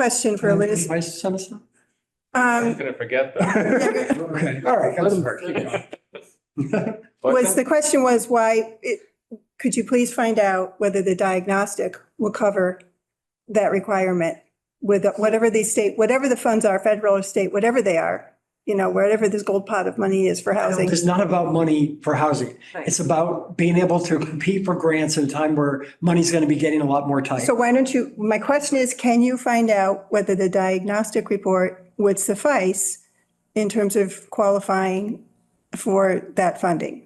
question Mm-hmm. for Liz. Can I send us some? I'm Um, gonna forget that. Yeah. Okay, all right. I'm sorry, keep going. was, the question was why, it- could you please find out whether the diagnostic will cover that requirement with whatever the state, whatever the funds are, federal or state, whatever they are, you know, wherever this gold pot of money is for housing. It's not about money for housing. Right. It's about being able to compete for grants at a time where money's going to be getting a lot more tight. So why don't you, my question is, can you find out whether the diagnostic report would suffice in terms of qualifying for that funding?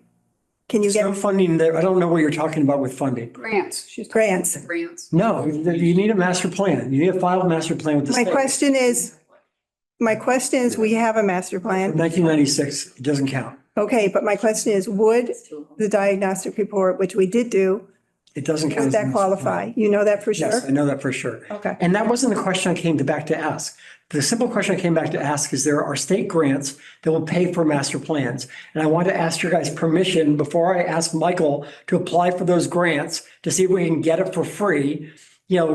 Can you There's no get funding there. I don't know what you're talking about with funding. Grants, she's talking grants? about grants. No, you need a master plan. You need a filed master plan with the My state. question is, my question is, we have a master plan. 1996, it doesn't count. Okay, but my question is, would It's too long. the diagnostic report, which we did do, It doesn't count. would as a that master plan. qualify? You know that for Yes, I sure? know that for sure. Okay. And that wasn't the question I came to back to ask. The simple question I came back to ask is there are state grants that will pay for master plans. And I want to ask your guys permission before I ask Michael to apply for those grants to see if we can get it for free. You know,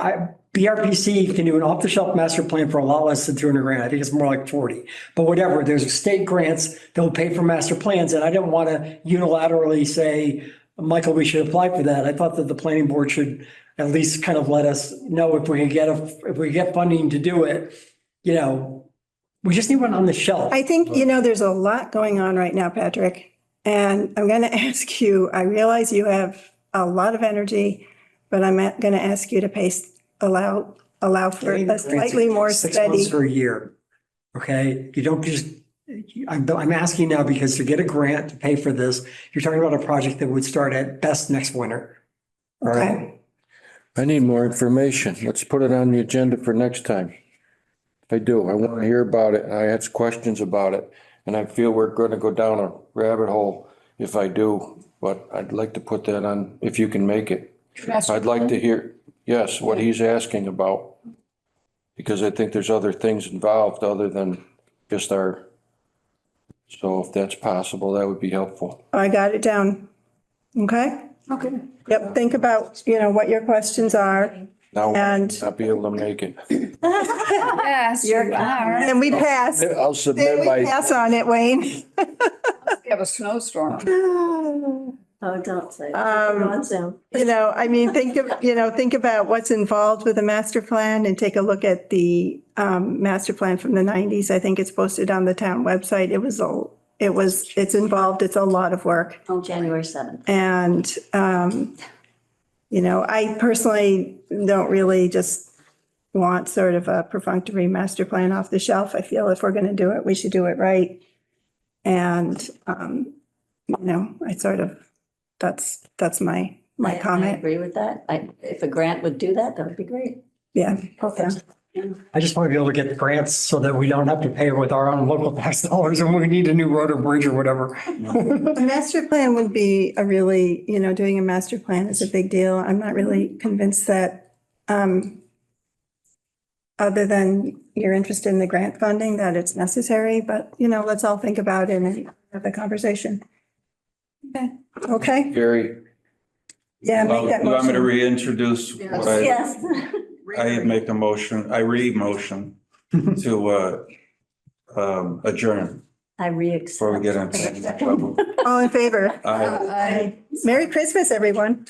I, BRPC can do an off the shelf master plan for a lot less than 200 grand. I think it's more like 40, but whatever, there's state grants that will pay for master plans. And I didn't want to unilaterally say, Michael, we should apply for that. I thought that the planning board should at least kind of let us know if we can get, a- if we get funding to do it, you know, we just need one on the shelf. I think, you know, there's a lot going on right now, Patrick. And I'm going to ask you, I realize you have a lot of energy, but I'm going to ask you to pace, allow, allow for Getting a grants slightly more Six months steady. or a year, okay? You don't just, I'm, I'm asking now because to get a grant to pay for this, you're talking about a project that would start at best next winter. All right? I need more information. Let's put it on the agenda for next time. I do. I want to hear about it. I ask questions about it. And I feel we're going to go down a rabbit hole if I do, but I'd like to put that on, if you can make it. I'd like to hear, yes, what he's asking about. Because I think there's other things involved other than just our. So if that's possible, that would be helpful. I got it down. Okay? Okay. Yep. Think about, you know, what your questions are. Now, I'll And- not be able to make it. Yes, you You're- are. And we pass. I'll Then submit we my, pass on it, Wayne. We have a snowstorm. Oh, don't say. Um, Don't sound. You know, I mean, think of, you know, think about what's involved with a master plan and take a look at the um, master plan from the nineties. I think it's posted on the town website. It was, a, it was, it's involved. It's a lot of work. Oh, January seventh. And, um, you know, I personally don't really just want sort of a perfunctory master plan off the shelf. I feel if we're going to do it, we should do it right. And, um, you know, I sort of, that's, that's my, my I comment. agree with that. I, if a grant would do that, that would be great. Yeah. Perfect. I just want to be able to get grants so that we don't have to pay with our own local tax dollars and we need a new road or bridge or whatever. A master plan would be a really, you know, doing a master plan is a big deal. I'm not really convinced that, um, other than your interest in the grant funding, that it's necessary, but, you know, let's all think about it and have the conversation. Okay, okay, Gary. yeah, make Well, that You want me to motion. reintroduce what I, Yes. I had make a motion, I re-motion to uh, um, adjourn I re-accept. before we get into trouble. All in favor? Aye. I- Merry Christmas, everyone.